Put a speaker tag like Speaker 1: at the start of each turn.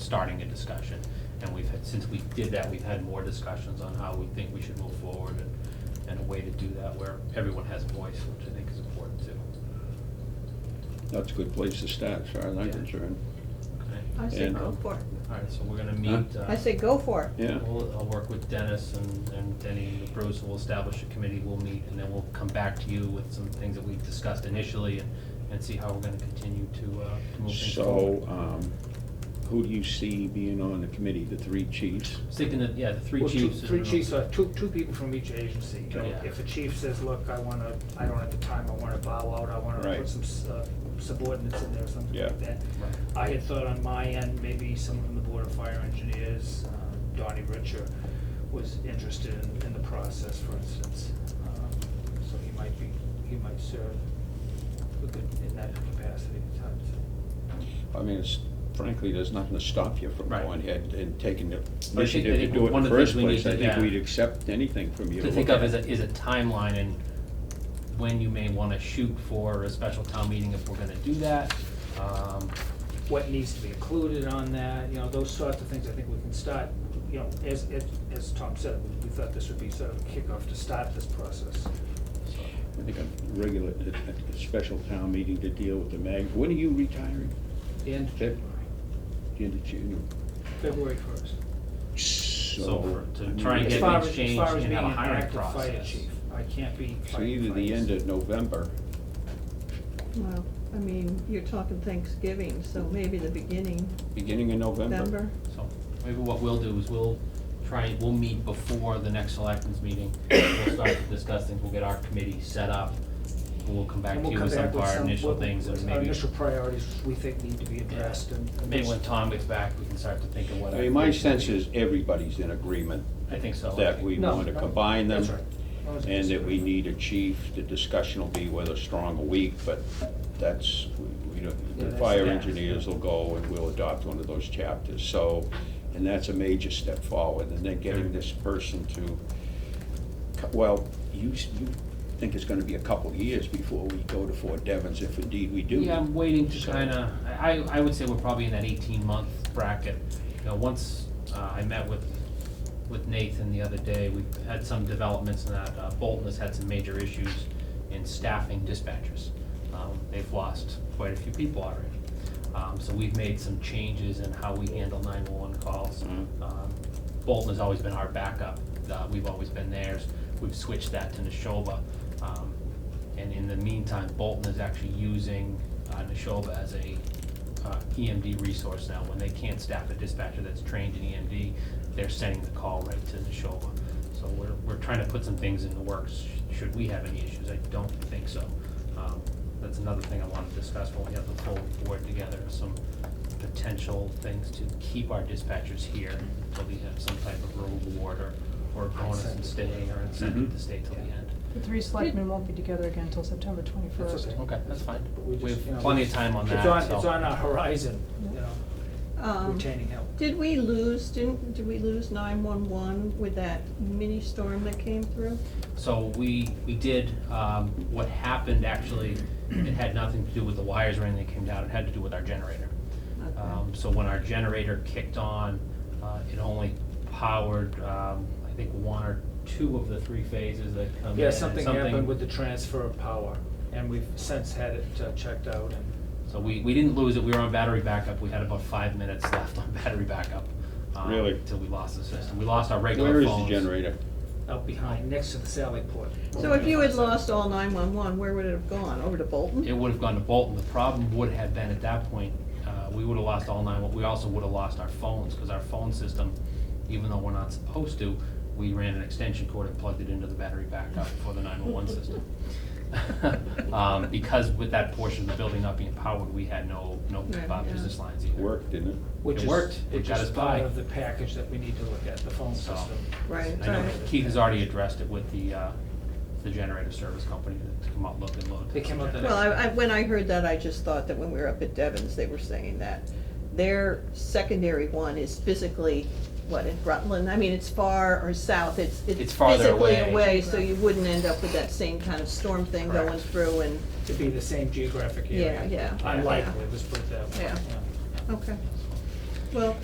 Speaker 1: starting a discussion. And we've had, since we did that, we've had more discussions on how we think we should move forward and, and a way to do that where everyone has a voice, which I think is important too.
Speaker 2: That's a good place to start, as far as I'm
Speaker 1: Yeah.
Speaker 2: concerned.
Speaker 1: Okay?
Speaker 3: I say
Speaker 2: And-
Speaker 3: go for it.
Speaker 1: All right, so we're gonna meet. uh,
Speaker 3: I say go for it.
Speaker 2: Yeah,
Speaker 1: We'll, I'll work with Dennis and, and Denny and Bruce, we'll establish a committee, we'll meet, and then we'll come back to you with some things that we've discussed initially and, and see how we're gonna continue to, uh, to move things forward.
Speaker 2: so, um, who do you see being on the committee, the three chiefs?
Speaker 1: Sticking to, yeah, the three
Speaker 4: Well, two-
Speaker 1: chiefs.
Speaker 4: Three chiefs, uh, two, two people from each agency. You know,
Speaker 1: Yeah.
Speaker 4: If a chief says, look, I wanna, I don't have the time, I wanna bow out, I wanna
Speaker 2: Right.
Speaker 4: put some s- uh, subordinates in there, or something
Speaker 2: Yeah.
Speaker 4: like that.
Speaker 1: Right.
Speaker 4: I had thought on my end, maybe someone from the Board of Fire Engineers, um, Donnie Richer, was interested in, in the process, for instance. Um, So he might be, he might serve a good- in that capacity at times.
Speaker 2: I mean, it's, frankly, there's nothing to stop you from
Speaker 1: Right.
Speaker 2: going ahead and taking the
Speaker 1: I think- I
Speaker 2: initiative to
Speaker 1: think
Speaker 2: do it in
Speaker 1: one
Speaker 2: the
Speaker 1: of the things
Speaker 2: first
Speaker 1: we need
Speaker 2: place.
Speaker 1: to-
Speaker 2: I think
Speaker 1: yeah.
Speaker 2: we'd accept anything from you.
Speaker 1: To think of
Speaker 2: look at.
Speaker 1: is a, is a timeline and when you may wanna shoot for a special town meeting if we're gonna do that. Um,
Speaker 4: what needs to be included on that, you know, those sorts of things, I think we can start, you know, as, as, as Tom said, we- we thought this would be sort of a kickoff to start this process.
Speaker 1: so,
Speaker 2: I think a regular, a, a special town meeting to deal with the mag, when are you retiring?
Speaker 4: And
Speaker 2: Feb- The end of June?
Speaker 4: February first.
Speaker 1: So for- to
Speaker 2: I mean,
Speaker 1: try and
Speaker 4: As
Speaker 1: get
Speaker 4: far
Speaker 1: things
Speaker 4: as, as
Speaker 1: changed
Speaker 4: far as
Speaker 1: and
Speaker 4: being
Speaker 1: have a
Speaker 4: an
Speaker 1: hiring
Speaker 4: active fire
Speaker 1: process.
Speaker 4: chief, I can't be
Speaker 2: So
Speaker 4: fighting
Speaker 2: either the
Speaker 4: fires.
Speaker 2: end of November,
Speaker 3: Well, I mean, you're talking Thanksgiving, so maybe the beginning,
Speaker 2: beginning of November.
Speaker 3: November.
Speaker 1: So maybe what we'll do is we'll try, we'll meet before the next selectmen's meeting. We'll start to discuss things, we'll get our committee set up, and we'll come back
Speaker 4: And
Speaker 1: to
Speaker 4: we'll
Speaker 1: you
Speaker 4: come
Speaker 1: with some
Speaker 4: back
Speaker 1: of our initial
Speaker 4: what-
Speaker 1: things and
Speaker 4: Our
Speaker 1: maybe.
Speaker 4: initial priorities we think need to be
Speaker 1: yeah,
Speaker 4: addressed and. and
Speaker 1: Maybe
Speaker 4: what's-
Speaker 1: when Tom gets back, we can start to think of what.
Speaker 2: I
Speaker 1: our
Speaker 2: mean, my
Speaker 1: committee's gonna
Speaker 2: sense
Speaker 1: be.
Speaker 2: is everybody's in agreement
Speaker 1: I think so. I
Speaker 2: that
Speaker 1: think-
Speaker 2: we
Speaker 4: No,
Speaker 2: want to
Speaker 4: no,
Speaker 2: combine them.
Speaker 4: that's right. That was-
Speaker 2: um, And that we need a chief, the discussion will be whether strong or weak, but that's, we- we don't,
Speaker 4: Yeah,
Speaker 2: the
Speaker 4: that's-
Speaker 2: fire
Speaker 4: yeah.
Speaker 2: engineers will go and we'll adopt one of those chapters, so, and that's a major step forward, and then
Speaker 4: Mm-hmm.
Speaker 2: getting this person to, co- well, you, s- you think it's gonna be a couple of years before we go to Fort Devens, if indeed we do.
Speaker 1: Yeah, I'm waiting to
Speaker 2: So-
Speaker 1: kinda, I, I- I would say we're probably in that eighteen month bracket. You know, once, uh, I met with, with Nathan the other day, we had some developments in that, uh, Bolton has had some major issues in staffing dispatchers. Um, they've lost quite a few people already. Um, so we've made some changes in how we handle nine-one-one calls.
Speaker 2: Mhm.
Speaker 1: Um, Bolton has always been our backup, uh, we've always been theirs, we've switched that to Neshoba. Um, and in the meantime, Bolton is actually using uh, Neshoba as a uh, EMD resource now. When they can't staff a dispatcher that's trained in EMD, they're sending the call right to Neshoba. So we're, we're trying to put some things in the works, sh- should we have any issues. I don't think so. Um, That's another thing I want to discuss when we have the full board together, some potential things to keep our dispatchers here until we have some type of reward or, or bonus in staying or incentive to stay till the end.
Speaker 5: The three selectmen won't be together again until September twenty-first.
Speaker 4: okay.
Speaker 1: Okay, that's fine.
Speaker 4: But we
Speaker 1: We
Speaker 4: just, you know,
Speaker 1: have plenty of time on
Speaker 4: it's
Speaker 1: that, so-
Speaker 4: It's on uh, our horizon, you know,
Speaker 3: Um,
Speaker 4: retaining help.
Speaker 3: Did we lose, didn't, did we lose nine-one-one with that mini storm that came through?
Speaker 1: So we, we did, um, what happened actually, it had nothing to do with the wires or anything that came down, it had to do with our generator.
Speaker 3: Okay.
Speaker 1: Um, so when our generator kicked on, uh, it only powered, um, I think one or two of the three phases that come in.
Speaker 4: Yeah,
Speaker 1: and
Speaker 4: something happened with the transfer of power, and we've since had it uh, checked out and.
Speaker 1: So we, we didn't lose it, we were on battery backup, we had about five minutes left on battery backup. um,
Speaker 2: Really?
Speaker 1: Till we lost the system, we lost our regular
Speaker 2: Where is the
Speaker 1: phones.
Speaker 2: generator?
Speaker 4: out behind,
Speaker 1: Oh.
Speaker 4: next to the Sally Port.
Speaker 3: So if you had lost all nine-one-one, where would it have gone? Over to Bolton?
Speaker 1: it would have gone to Bolton. The problem would have been at that point, uh, we would have lost all nine, we also would have lost our phones, because our phone system, even though we're not supposed to, we ran an extension cord and plugged it into the battery backup for the nine-one-one system. Um, because with that portion of the building not being powered, we had no, no
Speaker 3: Yeah,
Speaker 1: uh,
Speaker 3: yeah.
Speaker 1: business lines either.
Speaker 2: Worked, didn't it?
Speaker 1: It
Speaker 4: Which is,
Speaker 1: worked. It
Speaker 4: which
Speaker 1: got
Speaker 4: is
Speaker 1: us by.
Speaker 4: part of the package that we need to look at, the phone
Speaker 1: So-
Speaker 4: system.
Speaker 3: Right,
Speaker 1: I know
Speaker 3: right.
Speaker 1: Keith has already addressed it with the, uh, the generator service company to come out, look and load.
Speaker 4: They came out the
Speaker 3: Well, I, I, when I heard that, I just thought that when we were up at Devon's, they were saying that their secondary one is physically, what, in Rutland? I mean, it's far or south, it's, it's
Speaker 1: It's farther
Speaker 3: physically
Speaker 1: away.
Speaker 3: away, so you wouldn't end up with that same kind of storm thing going
Speaker 1: Correct.
Speaker 3: through and,
Speaker 4: To be the same geographic area.
Speaker 3: Yeah, yeah.
Speaker 4: Unlikely, let's put it that way.
Speaker 3: Yeah.
Speaker 4: yeah.
Speaker 3: okay. Well,